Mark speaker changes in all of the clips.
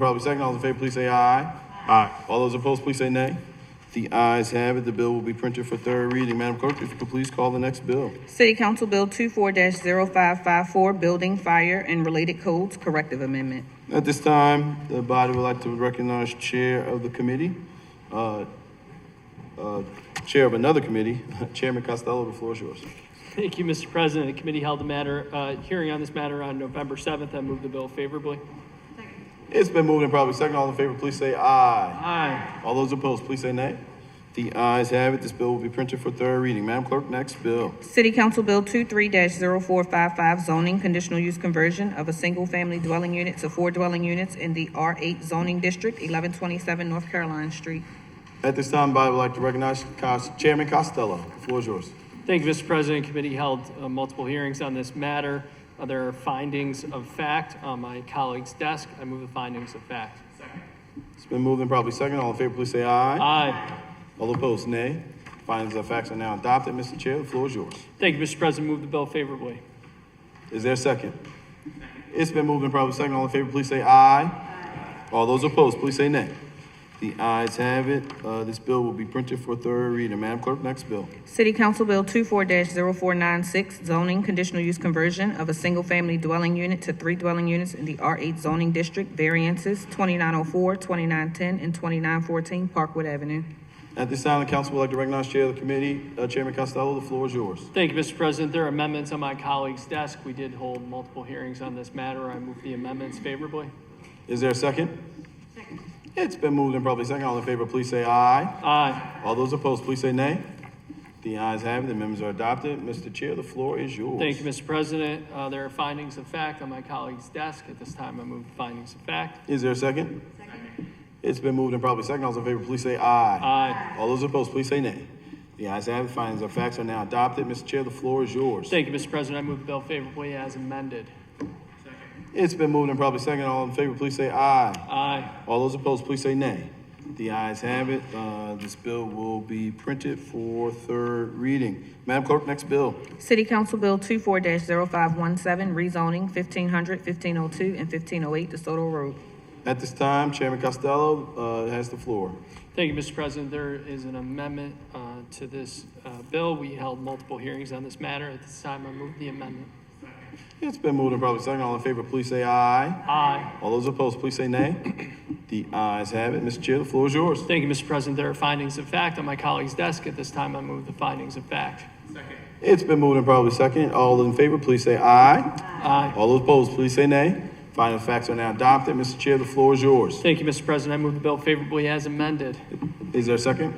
Speaker 1: Probably second, all in favor, please say aye. Aye. All those opposed, please say nay. The ayes have it, the bill will be printed for third reading. Madam Clerk, if you could please call the next bill.
Speaker 2: City Council Bill 24-0554, Building, Fire, and Related Codes Corrective Amendment.
Speaker 1: At this time, the body would like to recognize Chair of the Committee, uh, uh, Chair of another committee, Chairman Costello, the floor is yours.
Speaker 3: Thank you, Mr. President. The committee held the matter, uh, hearing on this matter on November 7th. I move the bill favorably.
Speaker 1: It's been moved and probably second, all in favor, please say aye.
Speaker 3: Aye.
Speaker 1: All those opposed, please say nay. The ayes have it, this bill will be printed for third reading. Madam Clerk, next bill.
Speaker 2: City Council Bill 23-0455, Zoning, Conditional Use Conversion of a Single-Family Dwelling Unit to Four Dwelling Units in the R eight zoning district, eleven twenty-seven North Caroline Street.
Speaker 1: At this time, body would like to recognize Cos- Chairman Costello, the floor is yours.
Speaker 3: Thank you, Mr. President. Committee held uh, multiple hearings on this matter. Uh, There are findings of fact on my colleague's desk. I move the findings of fact.
Speaker 1: It's been moved and probably second, all in favor, please say aye.
Speaker 3: Aye.
Speaker 1: All opposed, nay. Findings of facts are now adopted. Mr. Chair, the floor is yours.
Speaker 3: Thank you, Mr. President. Move the bill favorably.
Speaker 1: Is there a second? It's been moved and probably second. All in favor, please say aye. All those opposed, please say nay. The ayes have it. Uh, this bill will be printed for third reading. Madam Clerk, next bill.
Speaker 2: City Council Bill 24-0496, Zoning, Conditional Use Conversion of a Single-Family Dwelling Unit to Three Dwelling Units in the R eight zoning district, variances 2904, 2910, and twenty-nine fourteen Parkwood Avenue.
Speaker 1: At this time, the council would like to recognize Chair of the Committee, uh, Chairman Costello. The floor is yours.
Speaker 3: Thank you, Mr. President. There are amendments on my colleague's desk. We did hold multiple hearings on this matter. I move the amendments favorably.
Speaker 1: Is there a second? It's been moved and probably second. All in favor, please say aye.
Speaker 3: Aye.
Speaker 1: All those opposed, please say nay. The ayes have it. The amendments are adopted. Mr. Chair, the floor is yours.
Speaker 3: Thank you, Mr. President. Uh, There are findings of fact on my colleague's desk. At this time, I move the findings of fact.
Speaker 1: Is there a second? Second. It's been moved and probably second. All those in favor, please say aye.
Speaker 3: Aye.
Speaker 1: All those opposed, please say nay. The ayes have it. Findings of facts are now adopted. Mr. Chair, the floor is yours.
Speaker 3: Thank you, Mr. President. I move the bill favorably as amended.
Speaker 1: It's been moved and probably second. All in favor, please say aye.
Speaker 3: Aye.
Speaker 1: All those opposed, please say nay. The ayes have it. Uh, this bill will be printed for third reading. Madam Clerk, next bill.
Speaker 2: City Council Bill 24-0517, rezoning 1500, 1502, and fifteen oh eight DeSoto Road.
Speaker 1: At this time, Chairman Costello, uh, has the floor.
Speaker 3: Thank you, Mr. President. There is an amendment uh, to this uh, bill. We held multiple hearings on this matter. At this time, I move the amendment.
Speaker 1: It's been moved and probably second. All in favor, please say aye.
Speaker 3: Aye.
Speaker 1: All those opposed, please say nay. The ayes have it. Mr. Chair, the floor is yours.
Speaker 3: Thank you, Mr. President. There are findings of fact on my colleague's desk. At this time, I move the findings of fact.
Speaker 1: It's been moved and probably second. All in favor, please say aye.
Speaker 3: Aye.
Speaker 1: All those opposed, please say nay. Final facts are now adopted. Mr. Chair, the floor is yours.
Speaker 3: Thank you, Mr. President. I move the bill favorably as amended.
Speaker 1: Is there a second?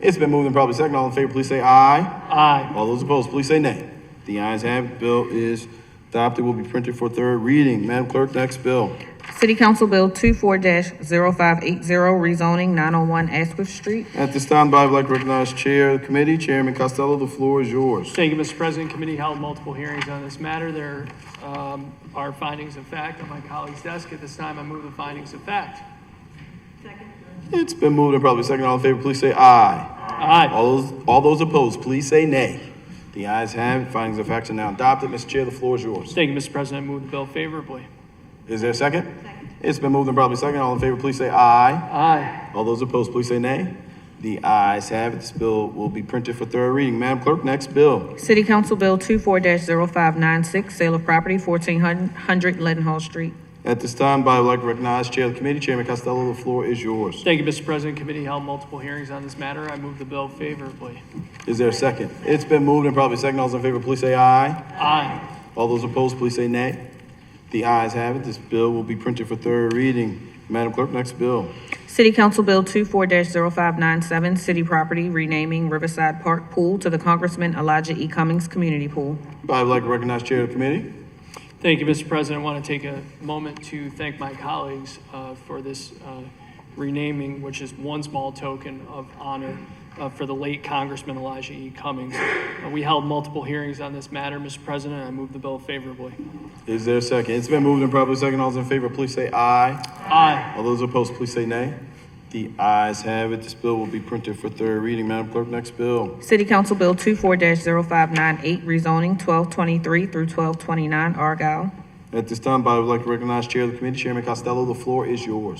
Speaker 1: It's been moved and probably second. All in favor, please say aye.
Speaker 3: Aye.
Speaker 1: All those opposed, please say nay. The ayes have it. Bill is adopted. Will be printed for third reading. Madam Clerk, next bill.
Speaker 2: City Council Bill 24-0580, rezoning nine oh one Asquith Street.
Speaker 1: At this time, I would like to recognize Chair of the Committee, Chairman Costello. The floor is yours.
Speaker 3: Thank you, Mr. President. Committee held multiple hearings on this matter. There um, are findings of fact on my colleague's desk. At this time, I move the findings of fact.
Speaker 1: It's been moved and probably second. All in favor, please say aye.
Speaker 3: Aye.
Speaker 1: All those, all those opposed, please say nay. The ayes have it, findings of facts are now adopted. Mr. Chair, the floor is yours.
Speaker 3: Thank you, Mr. President. I move the bill favorably.
Speaker 1: Is there a 2nd It's been moved and probably second. All in favor, please say aye.
Speaker 3: Aye.
Speaker 1: All those opposed, please say nay. The ayes have it, this bill will be printed for third reading. Madam Clerk, next bill.
Speaker 2: City Council Bill 24-0596, sale of property fourteen hundred Leadenhall Street.
Speaker 1: At this time, I would like to recognize Chair of the Committee, Chairman Costello, the floor is yours.
Speaker 3: Thank you, Mr. President. Committee held multiple hearings on this matter. I move the bill favorably.
Speaker 1: Is there a second? It's been moved and probably second. All those in favor, please say aye.
Speaker 3: Aye.
Speaker 1: All those opposed, please say nay. The ayes have it, this bill will be printed for third reading. Madam Clerk, next bill.
Speaker 2: City Council Bill 24-0597, city property renaming Riverside Park Pool to the Congressman Elijah E. Cummings Community Pool.
Speaker 1: I would like to recognize Chair of the Committee.
Speaker 3: Thank you, Mr. President. I want to take a moment to thank my colleagues uh, for this uh, renaming, which is one small token of honor uh, for the late Congressman Elijah E. Cummings. Uh, We held multiple hearings on this matter, Mr. President. I move the bill favorably.
Speaker 1: Is there a second? It's been moved and probably second. All those in favor, please say aye.
Speaker 3: Aye.
Speaker 1: All those opposed, please say nay. The ayes have it. This bill will be printed for third reading. Madam Clerk, next bill.
Speaker 2: City Council Bill 24-0598, rezoning twelve twenty-three through twelve twenty-nine Argyle.
Speaker 1: At this time, I would like to recognize Chair of the Committee, Chairman Costello. The floor is yours.